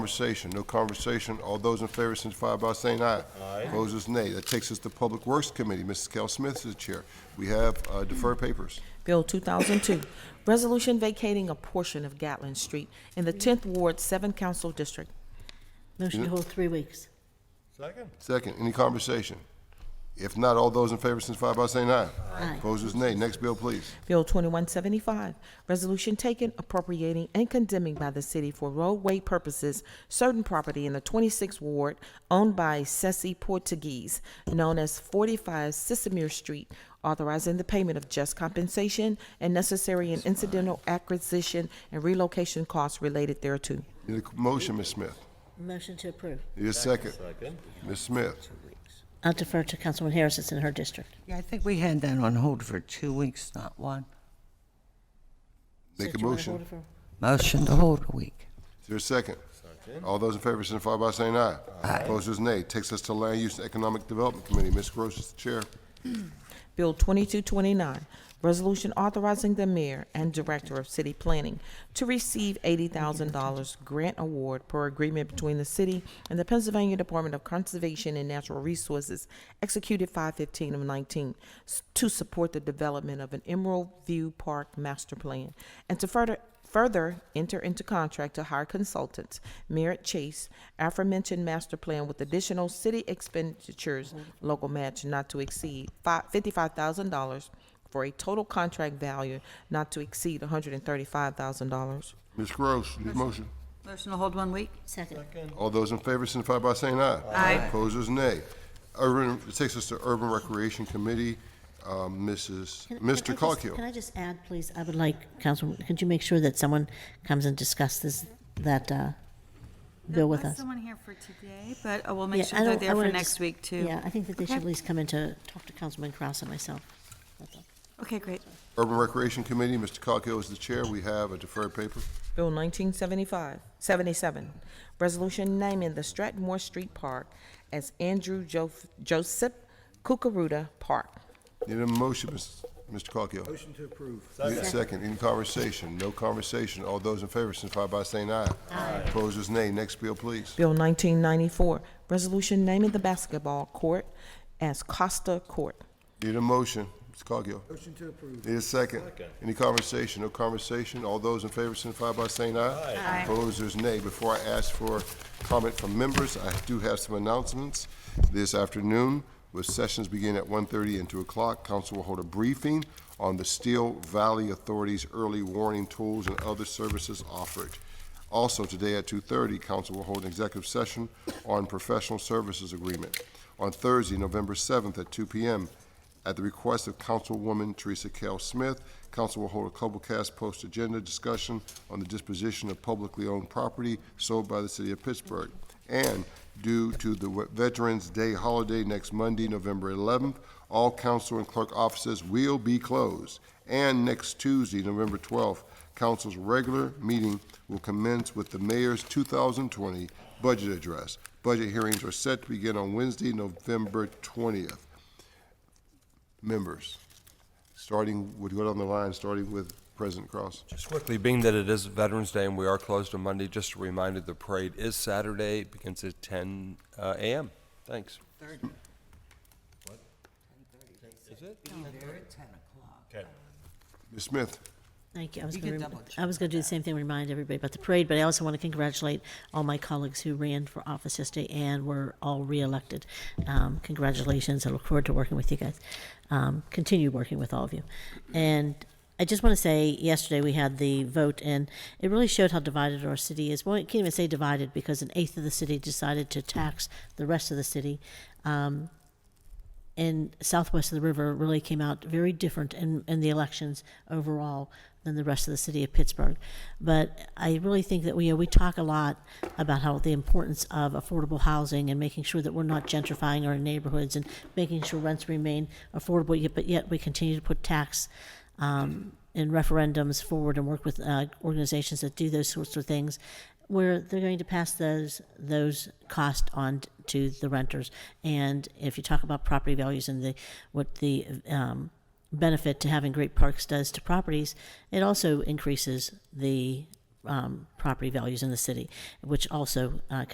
Conversation, no conversation. All those in favor signify by saying aye. Aye. Opposers, nay. That takes us to Public Works Committee. Mrs. Kell Smith is the chair. We have uh, deferred papers. Bill 2002, resolution vacating a portion of Gatlin Street in the 10th Ward, 7th Council District. Motion to hold three weeks. Second. Second, any conversation? If not, all those in favor signify by saying aye. Aye. Opposers, nay. Next bill, please. Bill 2175, resolution taken appropriating and condemning by the city for roadway purposes certain property in the 26th Ward owned by Sessi Portuguese, known as 45 Sissemeyer Street, authorizing the payment of just compensation and necessary and incidental acquisition and relocation costs related thereto. Need a motion, Ms. Smith. Motion to approve. Need a second. Second. Ms. Smith, I'll defer to Councilwoman Harris, it's in her district. Yeah, I think we had that on hold for two weeks, not one. make Did a you wanna motion. hold it for- Motion to hold a week. Is there a second? All those in favor signify by saying aye. Aye. Opposers, nay. Takes us to Land Use and Economic Development Committee. Ms. Gross is the chair. Bill 2229, resolution authorizing the mayor and director of city planning to receive $80,000 grant award per agreement between the city and the Pennsylvania Department of Conservation and Natural Resources, executed 515 of 19, s- to support the development of an Emerald View Park master plan, and to further Further, enter into contract to hire consultants, Merritt Chase, aforementioned master plan with additional city expenditures, local match not to exceed fi- $55,000 for a total contract value not to exceed $135,000. Ms. Gross, need a motion. Motion to hold one week? Second. All those in favor signify by saying aye. Aye. Opposers, nay. Urban, it takes us to Urban Recreation Committee, um, Mrs., Can- can I Mr. just- Can Coghill. I just add, please, I would like, Councilwoman, could you make sure that someone comes and discusses that uh, bill with us? There was someone here for today, but uh, we'll Yeah, make sure I they're don't- I there for wanna next just- week, too. Yeah, I think that they should Okay. at least come in to talk to Councilman Kraus and myself. That's all. Okay, great. Urban Recreation Committee, Mr. Coghill is the chair. We have a deferred paper. Bill 1975, 77, resolution naming the Stratmore Street Park as Andrew Jo- Joseph Cucaruda Park. Need a motion, Ms. Mr. Coghill. Motion to approve. Need a second. Any conversation? No conversation. All those in favor signify by saying aye. Aye. Opposers, nay. Next bill, please. Bill 1994, resolution naming the basketball court as Costa Court. Need a motion, Mr. Coghill. Motion to approve. Need a second. Any conversation, no conversation, all those in favor signify by saying aye. Aye. Opposers, nay. Before I ask for comment from members, I do have some announcements. This afternoon, with sessions beginning at 1:30 and 2 o'clock, council will hold a briefing on the Steel Valley Authority's early warning tools and other services offered. Also, today at 2:30, council will hold an executive session on professional services agreement. On Thursday, November 7th at 2 p.m., at the request of Councilwoman Teresa Kell Smith, council will hold a Coblecast post-agenda discussion on the disposition of publicly owned property sold by the city of Pittsburgh. And due to the we- Veterans Day holiday next Monday, November 11th, all council and clerk offices will be closed. And next Tuesday, November 12th, council's regular meeting will commence with the mayor's 2020 budget address. Budget hearings are set to begin on Wednesday, November 20th members, starting, would you go down the line, starting with President Cross? Just quickly, being that it is Veterans Day and we are closed on Monday, just a reminder, the parade is Saturday, It begins at 10 uh, a.m. Thanks. Ms. Smith, Thank you. I was going to, I was going to do the same thing, remind everybody about the parade, but I also want to congratulate all my colleagues who ran for office yesterday and were all reelected. Um, congratulations. I look forward to working with you guys. Um, continue working with all of you. And I just want to say, yesterday we had the vote, and it really showed how divided our city is. Well, I can't even say divided because an eighth of the city decided to tax the rest of the city and southwest of the river really came out very different in, in the elections overall than the rest of the city of Pittsburgh. But I really think that we, you know, we talk a lot about how the importance of affordable housing and making sure that we're not gentrifying our neighborhoods and making sure rents remain affordable, yet, but yet we continue to put tax um, and referendums forward and work with uh, organizations that do those sorts of things where they're going to pass those those costs on to the renters and if you talk about property values and the what the um, benefit to having great parks does to properties it also increases the um, property values in the city, which also uh,